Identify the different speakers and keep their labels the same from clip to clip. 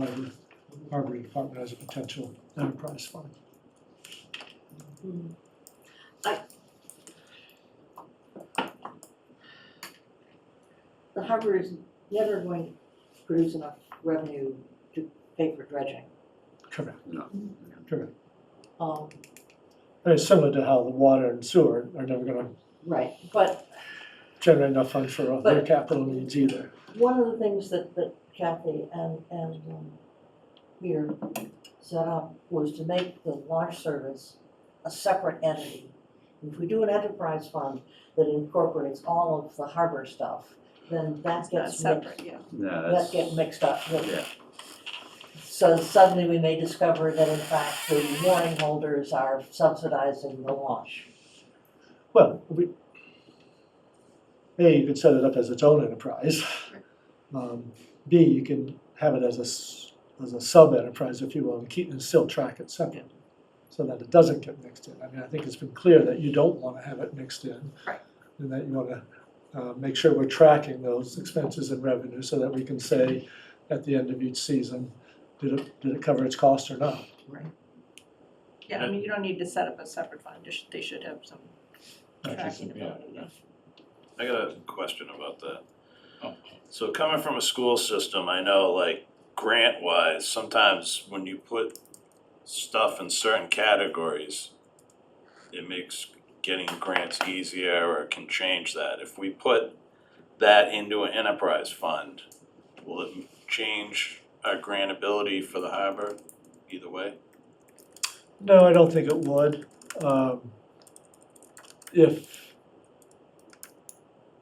Speaker 1: Harbor, Harbor Department as a potential enterprise fund.
Speaker 2: Mm. the harbor is never going to produce enough revenue to pay for dredging.
Speaker 1: Correct.
Speaker 3: No.
Speaker 1: Correct.
Speaker 2: Um,
Speaker 1: And It's similar to how the water and sewer are never gonna
Speaker 2: right, but
Speaker 1: generate enough funds for all their
Speaker 2: But-
Speaker 1: capital needs either.
Speaker 2: one of the things that, that Kathy and, and um, Peter set up was to make the launch service a separate entity. If we do an enterprise fund that incorporates all of the harbor stuff, then that
Speaker 4: Not
Speaker 2: gets mixed,
Speaker 4: separate, yeah.
Speaker 3: No,
Speaker 2: that
Speaker 3: that's,
Speaker 2: get mixed up with
Speaker 3: yeah,
Speaker 2: So suddenly we may discover that in fact the mooring holders are subsidizing the launch.
Speaker 1: Well, we, A, you can set it up as its own enterprise. Um, B, you can have it as a, s- as a sub-enterprise, if you will, and keep, and still track it separate. So that it doesn't get mixed in. I mean, I think it's been clear that you don't wanna have it mixed in.
Speaker 4: Right.
Speaker 1: And that you wanna, uh, make sure we're tracking those expenses and revenue so that we can say at the end of each season, did it, did it cover its cost or not?
Speaker 4: Yeah, I mean, you don't need to set up a separate fund, they should, they should have some tracking
Speaker 5: yeah,
Speaker 4: ability. yeah.
Speaker 6: I got a question about that. So coming from a school system, I know like grant wise, sometimes when you put stuff in certain categories, it makes getting grants easier or can change that. If we put that into an enterprise fund, will it change our grant ability for the harbor either way?
Speaker 1: No, I don't think it would. Um, If,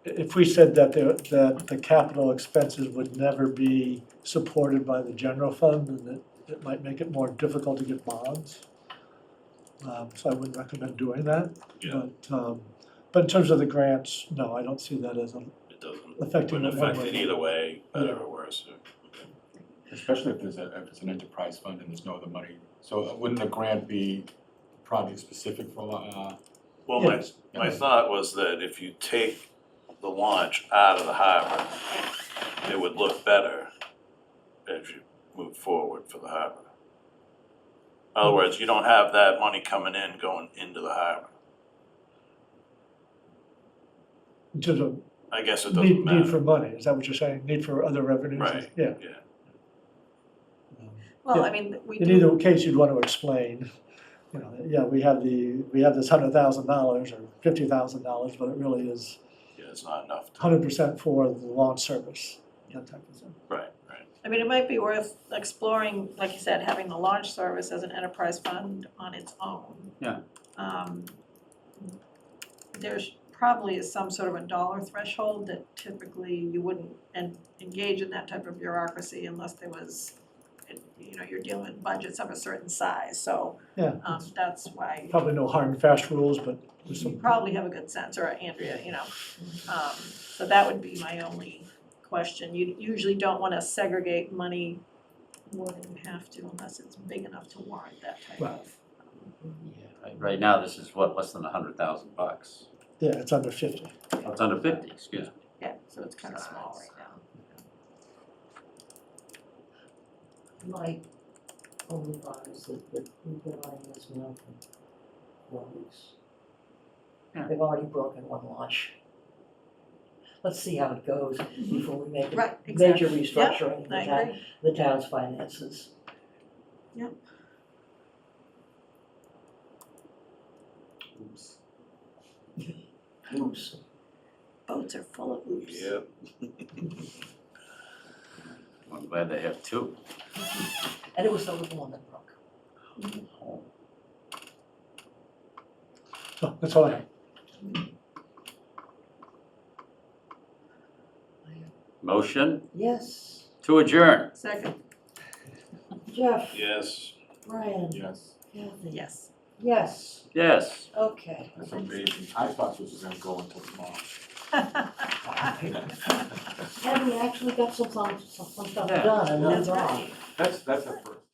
Speaker 1: if we said that there, that the capital expenses would never be supported by the general fund, then it, it might make it more difficult to get bonds. Um, So I wouldn't recommend doing that.
Speaker 6: Yeah.
Speaker 1: But, um, but in terms of the grants, no, I don't see that as a,
Speaker 6: It doesn't,
Speaker 1: Affecting
Speaker 6: wouldn't
Speaker 1: it one
Speaker 6: affect
Speaker 1: way.
Speaker 6: it either way, better or worse. Okay.
Speaker 5: Especially if there's a, if it's an enterprise fund and there's no other money. So uh, wouldn't the grant be project specific for, uh?
Speaker 6: Well, my,
Speaker 1: Yes.
Speaker 6: my thought was that if you take the launch out of the harbor, it would look better as you move forward for the harbor. In other words, you don't have that money coming in going into the harbor.
Speaker 1: in terms of
Speaker 6: I guess it
Speaker 1: need,
Speaker 6: doesn't
Speaker 1: need for
Speaker 6: matter.
Speaker 1: money, is that what you're saying? Need for other revenues?
Speaker 6: Right,
Speaker 1: Yeah.
Speaker 6: yeah.
Speaker 1: Um,
Speaker 4: Well, I mean, we
Speaker 1: In
Speaker 4: do,
Speaker 1: either case, you'd want to explain, you know, yeah, we have the, we have this hundred thousand dollars or fifty thousand dollars, but it really is
Speaker 6: Yeah, it's not enough to,
Speaker 1: hundred percent for the launch service, that type of thing.
Speaker 6: right, right.
Speaker 4: I mean, it might be worth exploring, like you said, having the launch service as an enterprise fund on its own.
Speaker 3: Yeah.
Speaker 4: Um, there's probably is some sort of a dollar threshold that typically you wouldn't en- engage in that type of bureaucracy unless there was, you know, you're dealing with budgets of a certain size, so,
Speaker 1: Yeah,
Speaker 4: um, that's why
Speaker 1: probably no hard and fast rules, but there's
Speaker 4: you
Speaker 1: some,
Speaker 4: probably have a good sense, or Andrea, you know. Um, so that would be my only question. You usually don't wanna segregate money more than you have to unless it's big enough to warrant that type
Speaker 1: Well,
Speaker 4: of.
Speaker 3: Yeah, right- Right now, this is what, less than a hundred thousand bucks,
Speaker 1: yeah, it's under fifty.
Speaker 3: it's under fifty, excuse me.
Speaker 4: Yeah, so it's kinda small right now.
Speaker 2: My only thought is that, that we've been running this now for four weeks.
Speaker 3: Yeah.
Speaker 2: They've already broken one launch. Let's see how it goes before we make a
Speaker 4: Right,
Speaker 2: major
Speaker 4: exactly. Yeah,
Speaker 2: restructuring of the
Speaker 4: I
Speaker 2: town,
Speaker 4: agree.
Speaker 2: the town's finances.
Speaker 5: Oops.
Speaker 2: Oops.
Speaker 4: Boats are full of oops.
Speaker 6: Yep.
Speaker 3: I'm glad they have two.
Speaker 2: And it was the little one that broke.
Speaker 1: So that's all I have.
Speaker 3: Motion
Speaker 2: Yes,
Speaker 3: to adjourn.
Speaker 4: Second,
Speaker 2: Jeff,
Speaker 6: Yes.
Speaker 2: Brian,
Speaker 5: Yes,
Speaker 2: Kathy,
Speaker 4: yes.
Speaker 2: yes,
Speaker 3: Yes.
Speaker 2: okay.
Speaker 5: that's amazing. I thought this was gonna go until tomorrow.
Speaker 2: And we actually got some, some, some stuff
Speaker 3: Yeah.
Speaker 2: done and
Speaker 4: That's
Speaker 2: that's all.
Speaker 4: right.
Speaker 5: That's, that's the first.